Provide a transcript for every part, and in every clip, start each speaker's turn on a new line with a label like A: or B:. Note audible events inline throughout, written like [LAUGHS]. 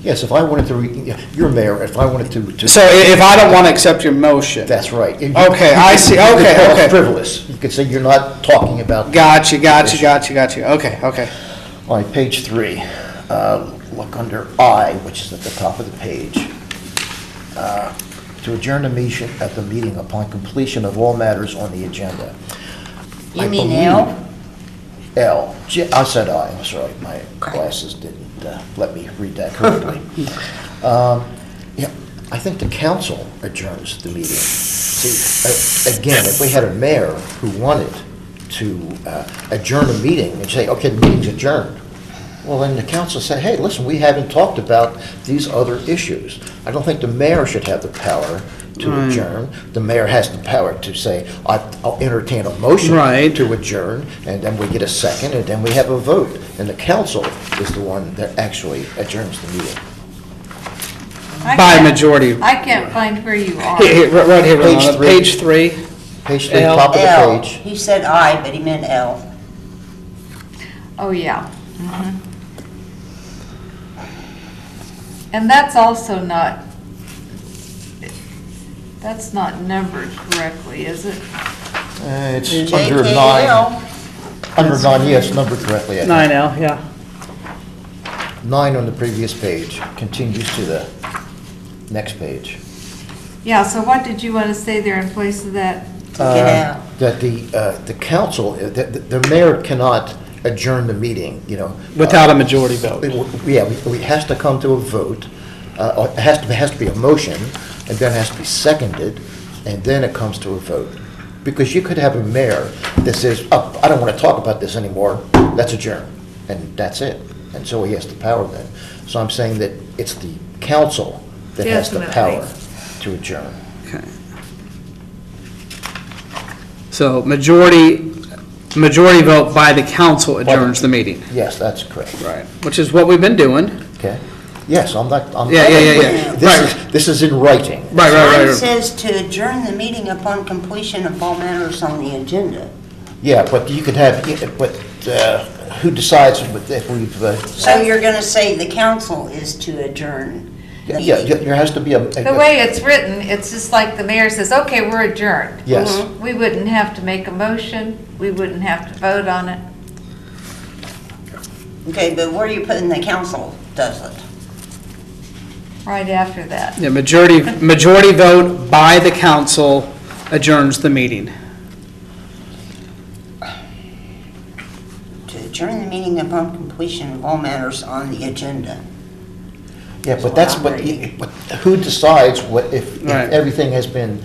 A: Yes, if I wanted to, re- yeah, you're mayor, if I wanted to. to-
B: So i- if I don't want to accept your motion?
A: That's right. You-
B: Okay, I see.
A: you could
B: Okay,
A: call it
B: okay.
A: Frivolous. You could say you're not talking about.
B: Gotcha, gotcha, gotcha, gotcha. Okay, okay.
A: On page three, uh, look under I, which is at the top of the page. Uh, To adjourn the meeting, at the meeting upon completion of all matters on the agenda. I
C: You mean
A: believe-
C: L?
A: L. J- I said I, I'm sorry, my glasses didn't uh, let me read that
C: [LAUGHS]
A: correctly. Um, Yeah, I think the council adjourns the meeting. See, a- uh, again, if we had a mayor who wanted to uh, adjourn a meeting and say, okay, the meeting's adjourned, well, then the council said, hey, listen, we haven't talked about these other issues. I don't think the mayor should have the power to adjourn. The mayor has the power to say, I- I'll entertain a motion
B: Right.
A: to adjourn, and then we get a second, and then we have a vote. And the council is the one that actually adjourns the meeting.
C: I
B: By
C: can't-
B: majority.
C: I can't find where you are.
B: Here, here, Right here,
A: Page
B: Ramona.
A: three.
B: Page three.
A: Page three,
B: L.
A: top of
C: L.
A: the page.
C: He said I, but he meant L. Oh, yeah. Mhm. And that's also not, that's not numbered correctly, is it?
A: Uh, It's under nine, under nine, yes, numbered correctly. I think.
B: Nine L, yeah.
A: Nine on the previous page continues to the next page.
C: Yeah, so what did you want to say there in place of that?
A: Uh, That the, uh, the council, uh, that that the mayor cannot adjourn the meeting, you know.
B: Without a majority vote.
A: It w- Yeah, we- we- it has to come to a vote, uh, or it has to, it has to be a motion, and then it has to be seconded, and then it comes to a vote. Because you could have a mayor that says, oh, I don't want to talk about this anymore, let's adjourn, and that's it. And so he has the power then. So I'm saying that it's the council that has the
C: Definitely.
A: power to adjourn.
B: So majority, majority vote by the council
A: the-
B: adjourns the meeting.
A: Yes, that's correct,
B: Right. Which is what we've been doing.
A: okay? Yes, I'm not, I'm.
B: Yeah, yeah, yeah, yeah.
A: This is, this is in writing.
B: Right, right,
D: Mine
B: right, right.
D: says to adjourn the meeting upon completion of all matters on the agenda.
A: Yeah, but you could have, but uh, who decides if we've, uh,
D: So you're gonna say the council is to adjourn the
A: yeah,
D: meeting.
A: there has to be a.
C: The way it's written, it's just like the mayor says, okay, we're adjourned. Mm-hmm.
A: Yes.
C: We wouldn't have to make a motion, we wouldn't have to vote on it.
D: Okay, but where are you putting the council does it?
C: Right after that.
B: Yeah, majority, majority vote by the council adjourns the meeting.
D: To adjourn the meeting upon completion of all matters on the agenda.
A: Yeah, but that's what, you- but who decides what, if if
B: Right.
A: everything has been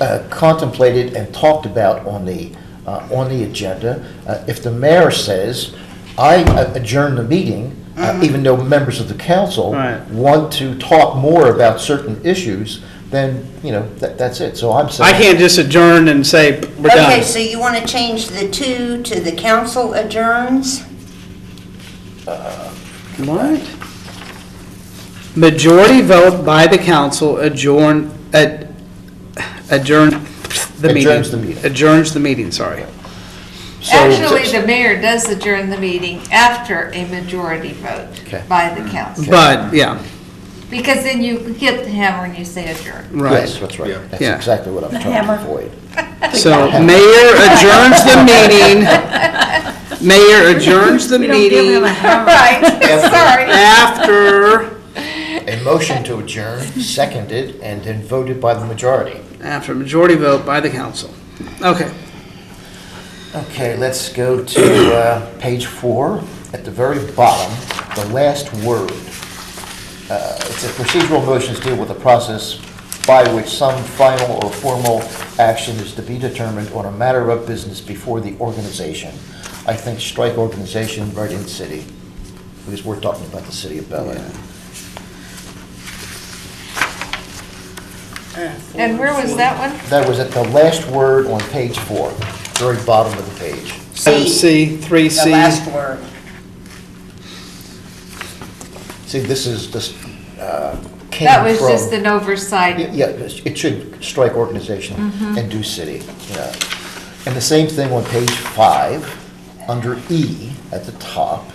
A: uh, contemplated and talked about on the, uh, on the agenda? Uh, If the mayor says, I adjourn the meeting, uh, even though members of the council
B: Mm-hmm. Right.
A: want to talk more about certain issues, then, you know, that, that's it. So I'm saying.
B: I can't just adjourn and say, we're
D: Okay,
B: done.
D: so you wanna change the two to the council adjourns?
B: What? Majority vote by the council adjourn, ad- adjourn the meeting.
A: Adjourns the meeting.
B: Adjourns the meeting, sorry.
A: so-
C: Actually, the mayor does adjourn the meeting after a majority vote
A: Okay.
C: by the council.
B: But, yeah,
C: Because then you hit the hammer and you say adjourn.
B: right.
A: Yes, that's right. That's
B: Yeah.
A: exactly what I'm trying to avoid.
B: So mayor adjourns the
C: [LAUGHS]
B: meeting. Mayor adjourns the meeting
C: Right, sorry.
B: after,
A: A motion to adjourn, seconded, and then voted by the majority.
B: after majority vote by the council. Okay.
A: Okay, let's go to uh, page four, at the very bottom, the last word. Uh, It says procedural motions deal with the process by which some final or formal action is to be determined on a matter of business before the organization. I think strike organization right in city, because we're talking about the city of Bel Air.
C: And where was that one?
A: That was at the last word on page four, very bottom of the page.
B: Item C, three
D: The
B: C.
D: last word.
A: See, this is, this uh, came from.
C: That was just an oversight.
A: Yeah, it should strike organization and do city, yeah. And the same thing on page five, under E at the top.